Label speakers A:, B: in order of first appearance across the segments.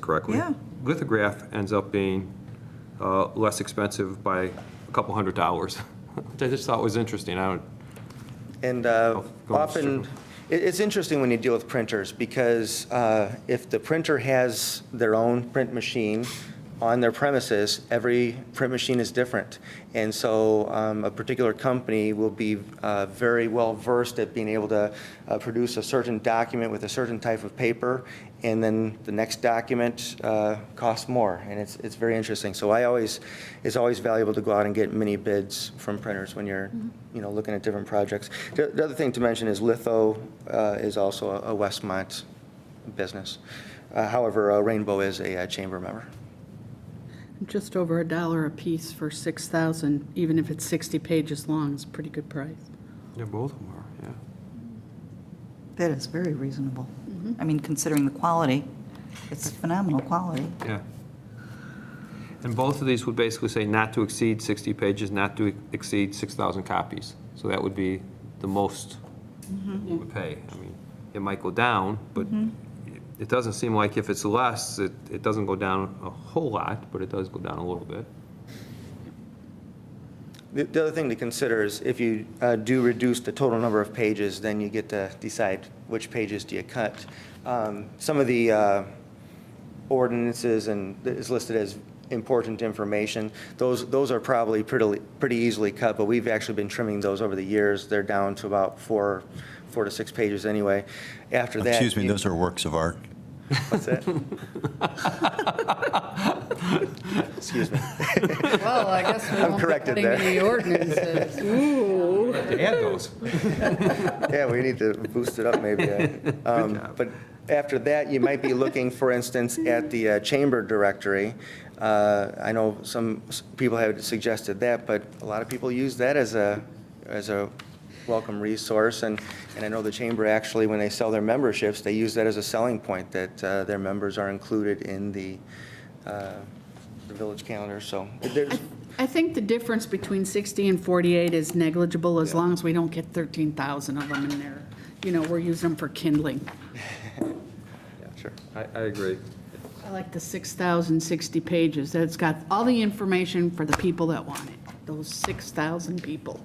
A: correctly.
B: Yeah.
A: Lithograph ends up being uh, less expensive by a couple hundred dollars, which I just thought was interesting. I don't,
C: And uh,
A: Oh, go on,
C: often,
A: Mr.
C: it- it's interesting when you deal with printers, because uh, if the printer has their own print machine on their premises, every print machine is different. And so um, a particular company will be uh, very well-versed at being able to uh, produce a certain document with a certain type of paper, and then the next document uh, costs more, and it's, it's very interesting. So I always, it's always valuable to go out and get mini bids from printers when you're, you know, looking at different projects. The the other thing to mention is Litho uh, is also a a Westmont business. Uh, However, uh, Rainbow is a uh, chamber member.
D: Just over a dollar a piece for 6,000, even if it's 60 pages long, is a pretty good price.
A: yeah, both of them are, yeah.
B: That is very reasonable. I mean, considering the quality, it's phenomenal quality.
A: Yeah. And both of these would basically say not to exceed 60 pages, not to exceed 6,000 copies. So that would be the most we would pay. I mean, it might go down, but it- it doesn't seem like if it's less, it, it doesn't go down a whole lot, but it does go down a little bit.
C: The- The other thing to consider is if you uh, do reduce the total number of pages, then you get to decide which pages do you cut. Um, Some of the uh, ordinances and that is listed as important information, those, those are probably pretty, pretty easily cut, but we've actually been trimming those over the years. They're down to about four, four to six pages anyway. After that.
E: Excuse me,
C: you-
E: those are works of art.
C: What's that? Excuse me.
D: Well, I guess we
C: I'm corrected there.
D: The ordinances. Ooh.
A: To add those.
C: Yeah, we need to boost it up maybe. uh, um, But after that, you might be looking, for instance, at the uh, chamber directory. Uh, I know some s- people have suggested that, but a lot of people use that as a, as a welcome resource. And, and I know the chamber actually, when they sell their memberships, they use that as a selling point, that uh, their members are included in the, uh, the village calendar. So there's,
D: I think the difference between 60 and 48 is negligible as long as we don't get 13,000 of them in there. You know, we're using them for kindling.
C: sure.
A: I, I agree.
D: I like the 6,060 pages. That's got all the information for the people that want it, those 6,000 people.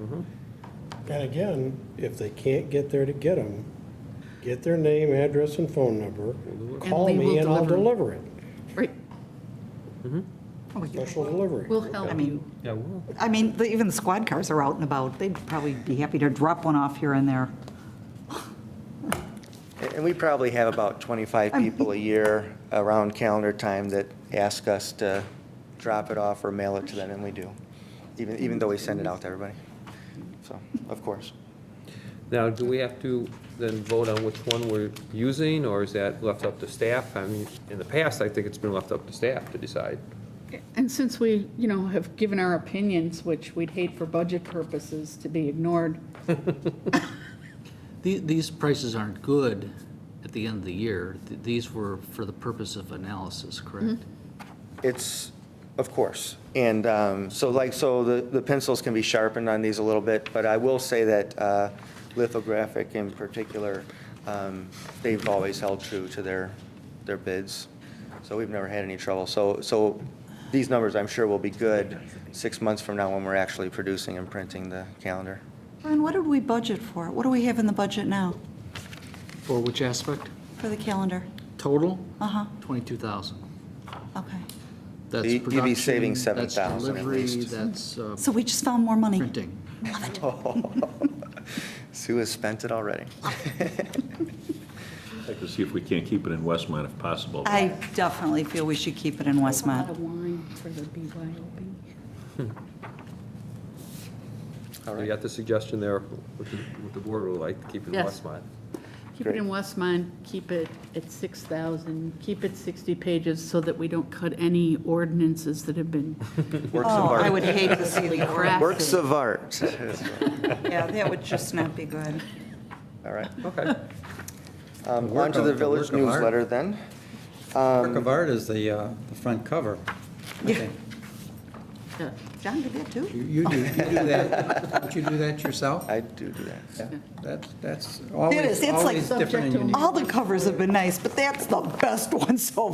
F: And again, if they can't get there to get them, get their name, address, and phone number, call
D: we will
F: me and I'll
D: deliver.
F: deliver it.
D: Right,
B: Oh, yeah.
F: Special delivery.
D: we'll help you.
A: Yeah,
B: I mean, the- even the squad cars are out and about. They'd probably be happy to drop one off here and there.
C: And we probably have about 25 people a year around calendar time that ask us to drop it off or mail it to them, and we do, even, even though we send it out to everybody. So, of course.
A: Now, do we have to then vote on which one we're using, or is that left up to staff? I mean, in the past, I think it's been left up to staff to decide.
D: And since we, you know, have given our opinions, which we'd hate for budget purposes to be ignored,
G: The- These prices aren't good at the end of the year. Th- These were for the purpose of analysis, correct?
B: Mm-hmm.
C: It's, of course. And um, so like, so the, the pencils can be sharpened on these a little bit, but I will say that uh, lithographic in particular, um, they've always held true to their, their bids. So we've never had any trouble. So, so these numbers, I'm sure, will be good six months from now when we're actually producing and printing the calendar.
B: Ron, what did we budget for? What do we have in the budget now
G: For which aspect?
B: for the calendar?
G: Total,
B: Uh-huh,
G: 22,000.
B: okay.
G: That's
C: You- you'd be
G: production,
C: saving 7,000 at
G: That's delivery,
C: least.
G: that's uh,
B: So we just found more money.
G: printing.
C: Sue has spent it already.
H: I'd like to see if we can't keep it in Westmont if possible.
B: I definitely feel we should keep it in
D: a lot
B: Westmont.
D: of wine for the BYOB.
A: You got the suggestion there, what the, what the board would like, to keep in
D: Yes.
A: Westmont.
D: Keep it in
C: Great.
D: Westmont, keep it at 6,000, keep it 60 pages so that we don't cut any ordinances that have been
C: Works
B: Oh,
C: of
B: I
C: art.
B: would hate to see the graph.
C: Works of art.
B: Yeah, that would just not be good.
C: All right.
A: Okay.
C: Um,
I: Work
C: Onto
I: of-
C: the
I: the
C: village
I: work of art.
C: newsletter then. Um,
I: Work of art is the, uh, the front cover. I
B: Yeah.
I: think.
D: uh,
B: John did that too.
E: You you do, you do that, don't you do that yourself?
C: I do do that.
E: Yeah, That's, that's
B: It is, it's
E: always,
B: like
E: always different and unique.
B: All the covers have been nice, but that's the best one so